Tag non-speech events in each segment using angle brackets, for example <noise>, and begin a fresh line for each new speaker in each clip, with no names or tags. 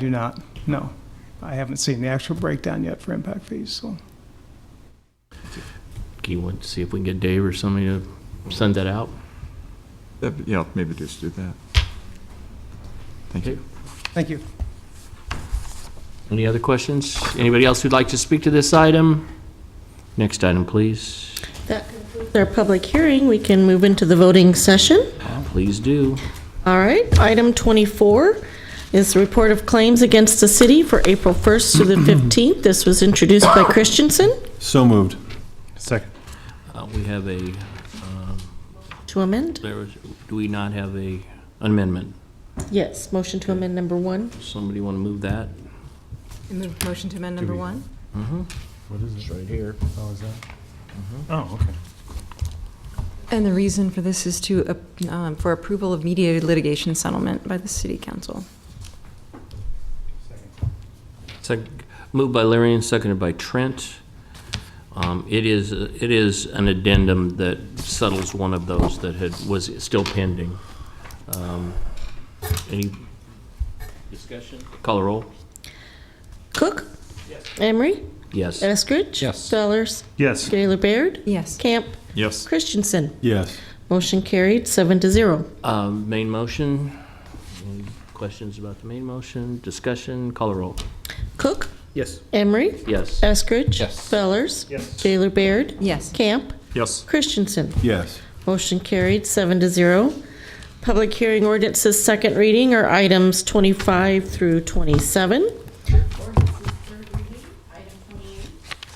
Do not, no. I haven't seen the actual breakdown yet for impact fees, so.
Do you want to see if we can get Dave or somebody to send that out?
That- Yeah, maybe just do that. Thank you.
Thank you.
Any other questions? Anybody else who'd like to speak to this item? Next item, please.
That concludes our public hearing. We can move into the voting session.
Uh, Please do.
All right, item 24 is the report of claims against the city for April 1st to the
<clears throat>
15th. This was introduced by Christensen
So moved.
Second.
Uh, We have a, um,
to amend.
there was- do we not have a amendment?
Yes, motion to amend number one.
Somebody want to move that?
Move motion to amend number one?
What is it?
Right here.
Oh, is that? Oh, okay.
And the reason for this is to, uh, um, for approval of mediated litigation settlement by the city council.
Second, moved by Larry and seconded by Trent. Um, It is, it is an addendum that settles one of those that had, was still pending. Um, Any discussion? Call a roll?
Cook? Emery?
Yes.
Eskridge? Yes. Fellers?
Yes.
Gaylor Baird?
Yes.
Camp?
Yes.
Christensen?
Yes.
Motion carried, seven to zero.
Um, Main motion, any questions about the main motion? Discussion, call a roll.
Cook?
Yes.
Emery?
Yes.
Eskridge? Yes. Fellers?
Yes.
Gaylor Baird?
Yes.
Camp?
Yes.
Christensen?
Yes.
Motion carried, seven to zero. Public hearing ordinances, second reading are items 25 through 27.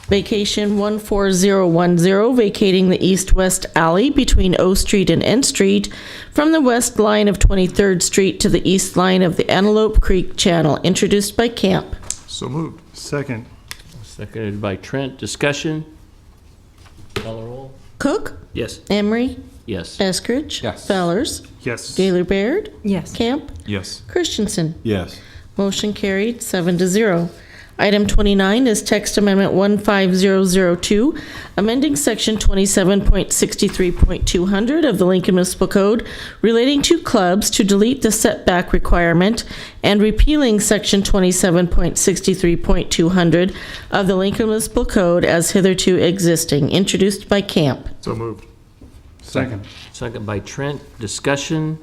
Vacation 14010, vacating the east-west alley between O Street and N Street from the west line of 23rd Street to the east line of the Antelope Creek Channel, introduced by Camp.
So moved.
Second.
Seconded by Trent, discussion? Call a roll?
Cook?
Yes.
Emery?
Yes.
Eskridge? Fellers?
Yes.
Gaylor Baird?
Yes.
Camp?
Yes.
Christensen?
Yes.
Motion carried, seven to zero. Item 29 is text amendment 15002, amending section 27.63.200 of the Lincoln Municipal Code relating to clubs to delete the setback requirement and repealing section 27.63.200 of the Lincoln Municipal Code as hitherto existing, introduced by Camp.
So moved.
Second.
Second by Trent, discussion?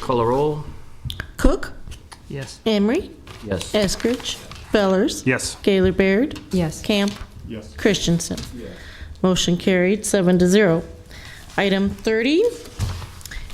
Call a roll?
Cook?
Yes.
Emery?
Yes.
Eskridge? Fellers?
Yes.
Gaylor Baird?
Yes.
Camp?
Yes.
Christensen. Motion carried, seven to zero. Item 30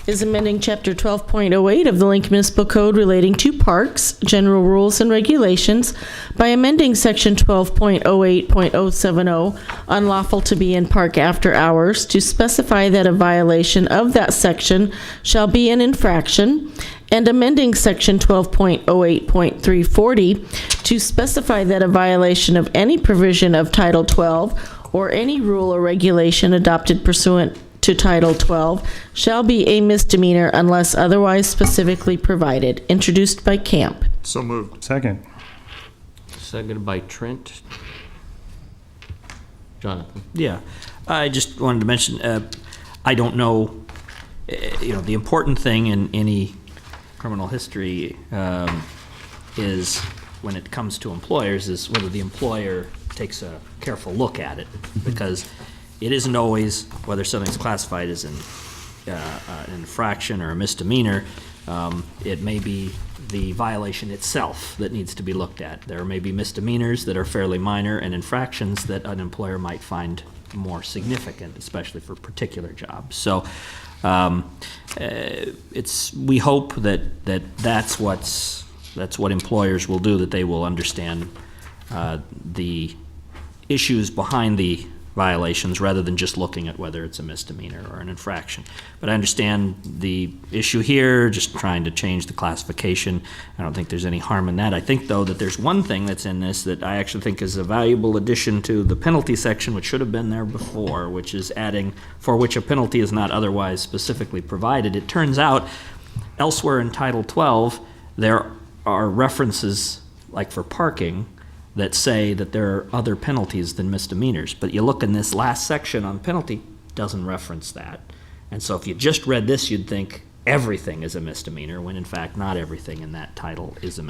is amending Chapter 12.08 of the Lincoln Municipal Code relating to parks, general rules and regulations by amending Section 12.08.070, oh, unlawful to be in park after hours, to specify that a violation of that section shall be an infraction, and amending Section 12.08.340 to specify that a violation of any provision of Title 12 or any rule or regulation adopted pursuant to Title 12 shall be a misdemeanor unless otherwise specifically provided, introduced by Camp.
So moved.
Second.
Seconded by Trent. Jonathan?
Yeah, I just wanted to mention, uh, I don't know, uh, you know, the important thing in any criminal history um, is, when it comes to employers, is whether the employer takes a careful look at it, because it isn't always whether something's classified as an uh, uh, an infraction or a misdemeanor, um, it may be the violation itself that needs to be looked at. There may be misdemeanors that are fairly minor and infractions that an employer might find more significant, especially for particular jobs. So um, eh, it's, we hope that, that that's what's, that's what employers will do, that they will understand uh, the issues behind the violations rather than just looking at whether it's a misdemeanor or an infraction. But I understand the issue here, just trying to change the classification. I don't think there's any harm in that. I think, though, that there's one thing that's in this that I actually think is a valuable addition to the penalty section, which should have been there before, which is adding for which a penalty is not otherwise specifically provided. It turns out elsewhere in Title 12, there are references, like for parking, that say that there are other penalties than misdemeanors. But you look in this last section on penalty, doesn't reference that. And so if you just read this, you'd think everything is a misdemeanor, when in fact, not everything in that title is a